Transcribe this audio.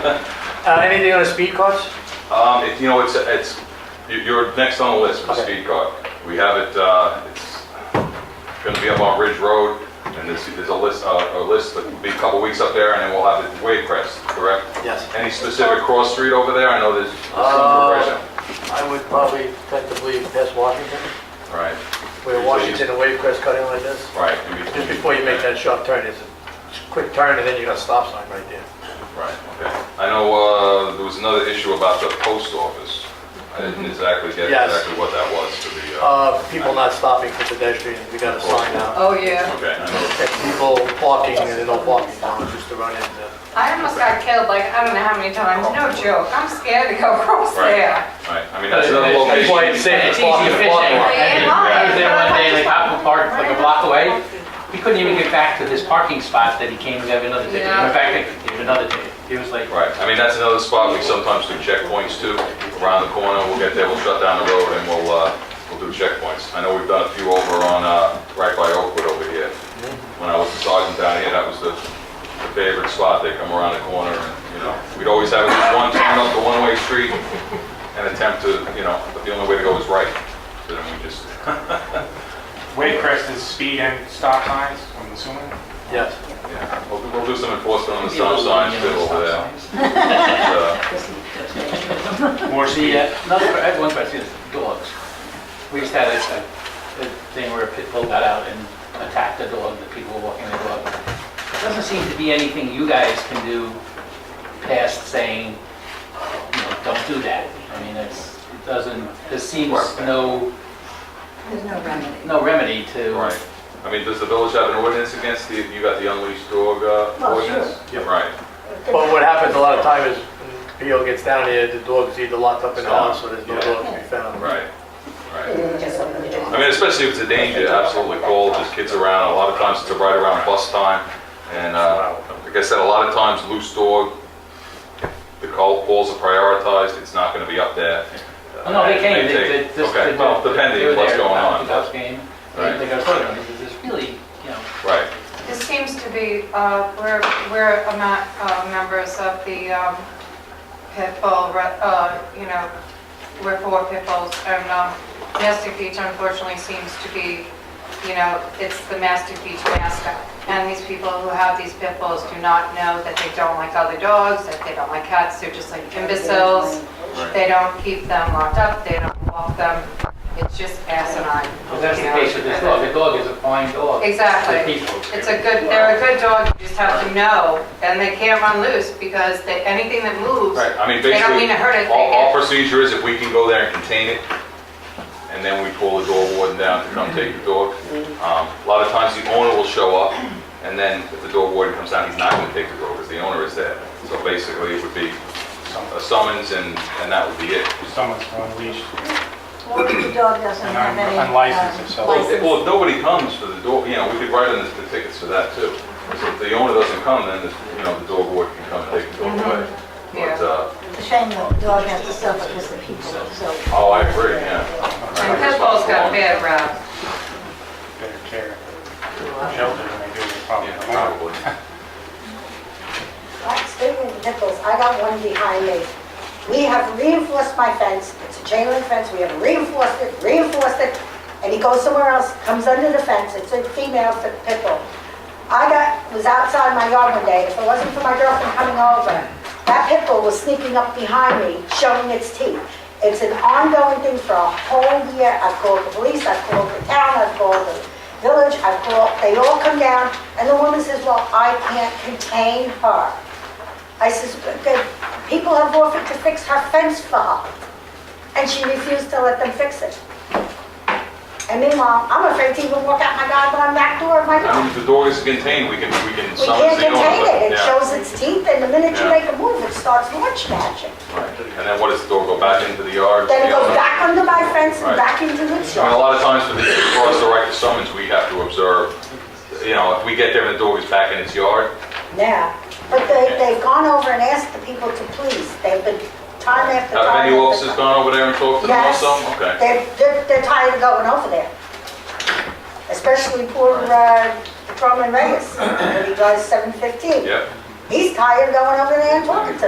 Uh, anything on the speed costs? Um, it, you know, it's, it's, you- you're next on the list for Okay. speed car. We have it, uh, it's gonna be up on Ridge Road, and there's, there's a list, uh, a list that will be a couple weeks up there, and then we'll have it Wavecrest, correct? Yes. Any specific cross street over there? I know there's there's some Uh, progression. I would probably technically pass Washington, Right, where Washington and Wavecrest cut in like this. right. Just before you make that sharp turn, it's a quick turn and then you got a stop sign right there. Right, okay. I know, uh, there was another issue about the post office. I didn't exactly get Mm-hmm. Yes. exactly what that was for the, uh, Uh, people not stopping for pedestrians, we got a sign out. Oh, yeah. okay, I know. And people parking, and there's no parking now, just to run into. I almost got killed like, I don't know how many times, no joke. I'm scared to go across Right. there. Right, I mean, that's another location. It's easy fishing. Yeah, I was there one day, like why? Apple Park, like a block away. He couldn't even get back to his parking spot that he came and got another ticket. Yeah. In fact, I gave him another ticket. He was like, Right, I mean, that's another spot we sometimes do checkpoints too, around the corner, we'll get there, we'll shut down the road and we'll, uh, we'll do checkpoints. I know we've done a few over on, uh, right by Oakwood over here. When I was a sergeant down here, that was the the favorite spot, they come around the corner and, you know, we'd always have at least one turn up the one-way street and attempt to, you know, but the only way to go is right, so then we just, Waycrest is speed and stop signs, I'm assuming? Yes. yeah, we'll, we'll do some enforcement on the "Give me stop a little signs yellow too stop over there. signs." But, uh, More The, speed? uh, another, I have one question, is dogs. We just had a, a a uh, thing where a pit bull got out and attacked a dog, the people were walking their dog. There Doesn't seem to be anything you guys can do past saying, you know, don't do that. I mean, it's, it doesn't, there seems Work. no, There's no remedy. no remedy to. Right, I mean, does the village have an ordinance against the, you got the unleashed dog uh, Oh, sure. ordinance? Yep. Right. But what happens a lot of time is, when PO gets down here, the dog's either locked up in the house, or there's no dog to be found. Right, right. I Right. mean, especially if it's a danger, absolutely call, there's kids around, a lot of times it's right around bus time, and, uh, like I said, a lot of times loose dog, the call, calls are prioritized, it's not gonna be up there. Oh, no, they came, they, they, take- this- Okay, they- well, they depending were what's there, going uh, on, The Cubs game, Right. they they got photos, this is really, you know, right, This seems to be, uh, we're, we're not uh, members of the um, pit bull, re- uh, you know, we're for pit bulls, and um, Mastic Beach unfortunately seems to be, you know, it's the Mastic Beach mascot. And these people who have these pit bulls do not know that they don't like other dogs, that they don't like cats, they're just like imbeciles. right. They don't keep them locked up, they don't walk them, it's just asinine. well, that's the you know, case with this and- dog, the dog is a fine dog. Exactly. The people. It's a good, they're a good dog, you just have to know, and they can't run loose because they, anything that moves, Right, I mean, They don't basically, mean to hurt it, they all, all get- procedure is if we can go there and contain it, and then we pull the dog warden down to come take the dog. Mm-hmm. Um, a lot of times the owner will show up, and then if the dog warden comes down, he's not gonna take the dog, because the owner is there. So basically, it would be a summons and, and that would be it. Someone's unleashed. Well, the dog doesn't And I'm have any. unlicensed, um, so- Well, if- license. well, if nobody comes for the dog, you know, we could write on this- the tickets for that too. So if the owner doesn't come, then, the- you know, the dog warden can come and take the dog away. Mm-hmm. Yeah. But, uh, It's a shame that the dog has to suffer because the people, so. oh, I agree, yeah. and pit bulls got a bad rap. Better care. Shelter than they do, with probably. Yeah, probably. Right, Speaking of nipples, I got one behind me. We have reinforced my fence, it's a chain link fence, we have reinforced it, reinforced it, and he goes somewhere else, comes under the fence, it's a female fi- pit bull. I got, was outside my yard one day, if it wasn't for my girlfriend coming over, that pit bull was sneaking up behind me, showing its teeth. It's an ongoing thing for a whole year, I've called the police, I've called the town, I've called the village, I've called, they all come down, and the woman says, well, I can't contain her. I says, "But the people have offered to fix her fence for her, and she refused to let them fix it. And meanwhile, I'm afraid to even walk out my goddamn back door of my I mean, house. if the dog is contained, we can, we can We summons the owner. can't contain oh, but- it, it yeah, shows its teeth, and the minute you Yeah. make a move, it starts lunch matching. right. And then what does the dog go back into the yard? Then The it goes owner- back under my fence and Right. back into the I mean, a yard. lot of times for the, for us to write the summons, we have to observe, you know, if we get there and the dog is back in its yard, Yeah, but they, they've gone over and asked the people to please, they've been time after time. have any after officers time. gone over there and talked to them or Yes. something? Okay. They're, they're, they're tired of going over there. Especially poor, uh, Patrolman Reyes, when he drives seven fifteen. Yeah, He's tired of going over there and talking to them.